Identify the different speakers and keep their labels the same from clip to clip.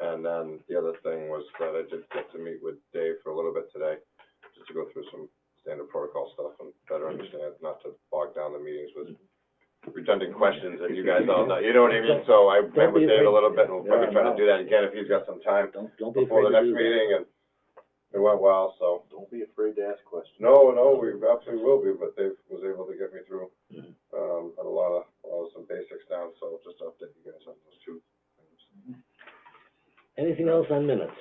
Speaker 1: And then the other thing was that I did get to meet with Dave for a little bit today, just to go through some standard protocol stuff and better understand, not to bog down the meetings with redundant questions and you guys all know, you know what I mean? So I met with Dave a little bit and we'll probably try to do that again if he's got some time
Speaker 2: Don't, don't be
Speaker 1: before the
Speaker 2: afraid to
Speaker 1: next
Speaker 2: do that.
Speaker 1: meeting and it went well, so.
Speaker 3: Don't be afraid to ask questions.
Speaker 1: No, no, we absolutely will be, but Dave was able to get me through,
Speaker 2: Mhm.
Speaker 1: um, had a lot of, a lot of some basics down, so just to update you guys on those two things.
Speaker 2: Anything else on minutes?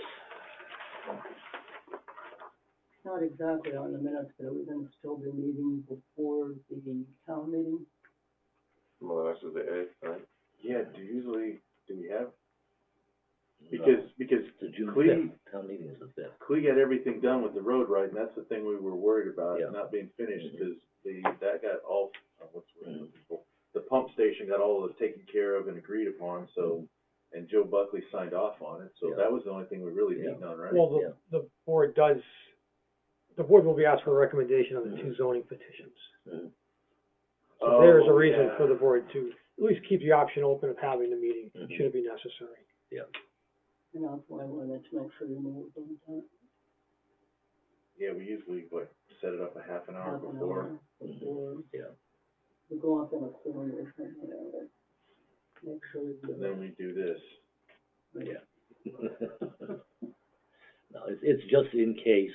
Speaker 4: Not exactly on the minutes, but it was in still the meeting before the town meeting.
Speaker 1: Well, that's the eighth, right?
Speaker 3: Yeah, do usually, do we have, because, because
Speaker 2: The June
Speaker 3: Clea,
Speaker 2: fifth, town meeting is the fifth.
Speaker 3: Clea got everything done with the road, right, and that's the thing we were worried about,
Speaker 2: Yeah.
Speaker 3: not being finished,
Speaker 2: Mhm.
Speaker 3: because the, that got all, uh, what's the word I'm
Speaker 2: Mm.
Speaker 3: looking for? The pump station got all of it taken care of and agreed upon, so, and Joe Buckley signed off on it, so
Speaker 2: Mm-hmm. Yeah.
Speaker 3: that was the only thing we really
Speaker 2: Yeah.
Speaker 3: beat on, right?
Speaker 5: Well,
Speaker 2: Yeah.
Speaker 5: the, the board does, the board will be asked for a recommendation on the two zoning petitions.
Speaker 2: Mhm.
Speaker 1: Mm-hmm.
Speaker 5: So there is a
Speaker 3: Oh,
Speaker 5: reason for
Speaker 3: yeah.
Speaker 5: the board to at least keep the option open of having the meeting,
Speaker 2: Mhm.
Speaker 5: should it be necessary.
Speaker 4: And that's why I wanted to make sure you knew what was on
Speaker 3: Yeah, we usually, what, set it up a half an
Speaker 4: that.
Speaker 3: hour
Speaker 4: Half an
Speaker 3: Uh, before,
Speaker 4: hour Before,
Speaker 2: Yeah,
Speaker 4: we go off in a corner or something, you know, but make sure you do
Speaker 3: and then
Speaker 4: that.
Speaker 3: we do this.
Speaker 2: yeah. No, it's, it's just in case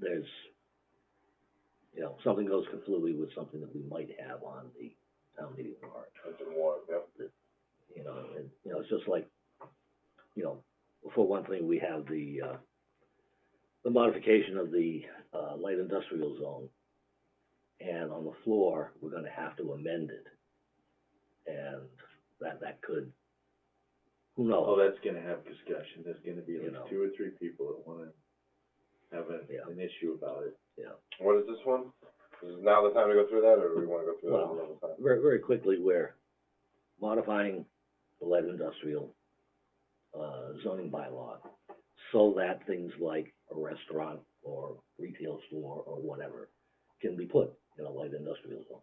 Speaker 2: there's, you know, something goes completely with something that we might have on the town meeting warrant.
Speaker 1: I didn't want, yeah.
Speaker 2: you know, and, you know, it's just like, you know, for one thing, we have the, uh, the modification of the, uh, light industrial zone. And on the floor, we're gonna have to amend it. And that, that could, who
Speaker 3: Oh,
Speaker 2: knows?
Speaker 3: that's gonna have discussion, there's gonna be
Speaker 2: You
Speaker 3: like
Speaker 2: know.
Speaker 3: two or three people that wanna have a,
Speaker 2: Yeah.
Speaker 3: an issue about it.
Speaker 2: Yeah.
Speaker 1: What is this one? Is now the time to go through that, or do we wanna go through that
Speaker 2: Well,
Speaker 1: another time?
Speaker 2: Very, very quickly, we're modifying the light industrial, uh, zoning bylaw. So that things like a restaurant or retail store or whatever can be put in a light industrial zone.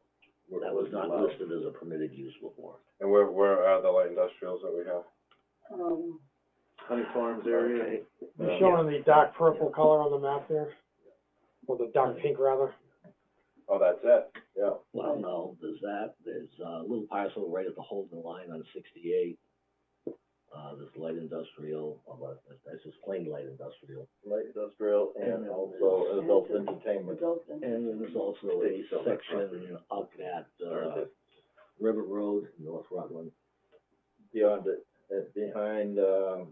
Speaker 3: What-
Speaker 2: That was
Speaker 3: what's
Speaker 2: not
Speaker 3: allowed.
Speaker 2: listed as a permitted use before.
Speaker 1: And where, where are the light industrials that we have?
Speaker 4: Um,
Speaker 3: Honey Farms area,
Speaker 2: Okay.
Speaker 5: They're
Speaker 1: Yeah.
Speaker 5: showing the dark purple
Speaker 2: Yeah.
Speaker 5: color on the map there, or the dark pink rather.
Speaker 1: Oh, that's it, yeah.
Speaker 2: Well, no, there's that, there's uh, a little parcel right at the Holden line on sixty-eight. Uh, there's light industrial, uh, but that's just plain light industrial.
Speaker 6: light industrial and also adult entertainment.
Speaker 4: adult and-
Speaker 2: And then there's also a
Speaker 3: They sell that
Speaker 2: section up at,
Speaker 3: or
Speaker 2: uh,
Speaker 3: the-
Speaker 2: River Road, North Rutland.
Speaker 6: beyond it, uh, behind, um,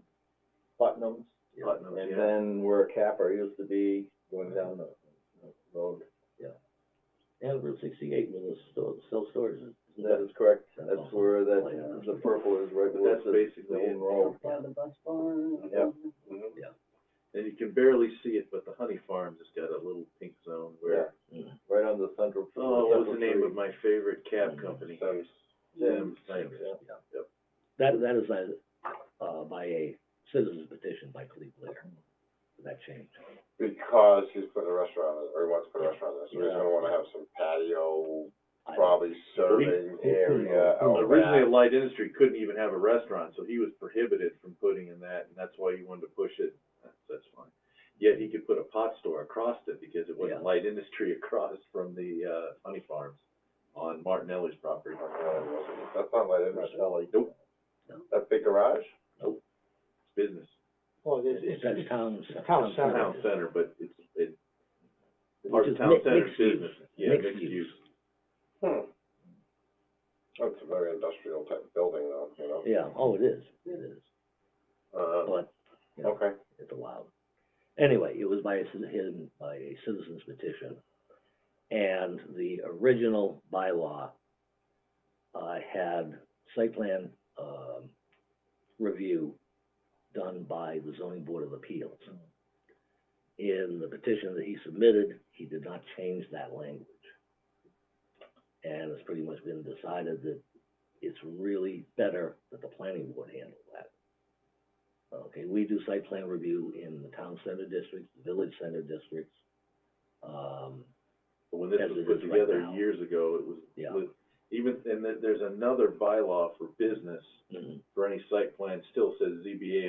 Speaker 6: Putnam's.
Speaker 2: Yeah.
Speaker 3: Putnam,
Speaker 6: And
Speaker 3: yeah.
Speaker 6: then where Capper used to be, going down the the road.
Speaker 2: And Route sixty-eight, where the store, self-storage is.
Speaker 6: That is correct, that's where
Speaker 2: uh,
Speaker 6: that, the purple is right
Speaker 3: But
Speaker 6: where it
Speaker 3: that's
Speaker 6: says
Speaker 3: basically
Speaker 6: Golden
Speaker 3: it.
Speaker 6: Road.
Speaker 4: By the bus barn.
Speaker 6: Yeah.
Speaker 1: Mhm.
Speaker 3: And you can barely see it, but the Honey Farms has got a little pink zone where,
Speaker 2: Mhm.
Speaker 6: Right on the central.
Speaker 3: oh, what was the
Speaker 6: central
Speaker 3: name
Speaker 6: tree.
Speaker 3: of my favorite cab company?
Speaker 1: Sims.
Speaker 3: Zim's,
Speaker 2: Same,
Speaker 3: thanks.
Speaker 2: yeah.
Speaker 3: Yep.
Speaker 2: That, that is a, uh, by a citizen's petition by Cleve Blair, that change.
Speaker 1: Because he's putting a restaurant, in- or he wants to put a restaurant there, so he's gonna wanna have some patio,
Speaker 2: I-
Speaker 1: probably serving area
Speaker 2: who knows?
Speaker 1: out
Speaker 3: Originally,
Speaker 1: back.
Speaker 3: Light Industry couldn't even have a restaurant, so he was prohibited from putting in that, and that's why he wanted to push it, that's, that's fine. Yet he could put a pot store across it, because it
Speaker 2: Yeah.
Speaker 3: wasn't Light Industry across from the, uh, Honey Farms on Martinelli's property.
Speaker 1: That's not light industry.
Speaker 6: Martelli.
Speaker 3: Nope,
Speaker 1: That big garage?
Speaker 3: it's business.
Speaker 5: Well, it's,
Speaker 2: It's
Speaker 5: it's,
Speaker 2: at town.
Speaker 5: Town
Speaker 3: It's
Speaker 5: center.
Speaker 3: Town center, but it's, it's
Speaker 2: Which
Speaker 3: part
Speaker 2: is
Speaker 3: of town
Speaker 2: mi-
Speaker 3: center
Speaker 2: mixed use.
Speaker 3: business. Yeah,
Speaker 2: mixed
Speaker 3: mixed
Speaker 2: use.
Speaker 3: use.
Speaker 1: Hmm. That's a very industrial type building though, you know?
Speaker 2: Yeah, oh, it is, it is,
Speaker 1: Uh,
Speaker 2: but Yeah.
Speaker 1: okay.
Speaker 2: it's allowed. Anyway, it was by a, citi- hidden by a citizen's petition. And the original bylaw, uh, had site plan, um, review done by the zoning board of appeals. In the petition that he submitted, he did not change that language. And it's pretty much been decided that it's really better that the planning board handle that. Okay, we do site plan review in the town center districts, village center districts. Um,
Speaker 3: But when this
Speaker 2: As
Speaker 3: was
Speaker 2: it
Speaker 3: put
Speaker 2: is right
Speaker 3: together
Speaker 2: now.
Speaker 3: years ago, it was,
Speaker 2: Yeah.
Speaker 3: was- even, and then there's another bylaw for business,
Speaker 2: mhm.
Speaker 3: for any site plan, still says ZBA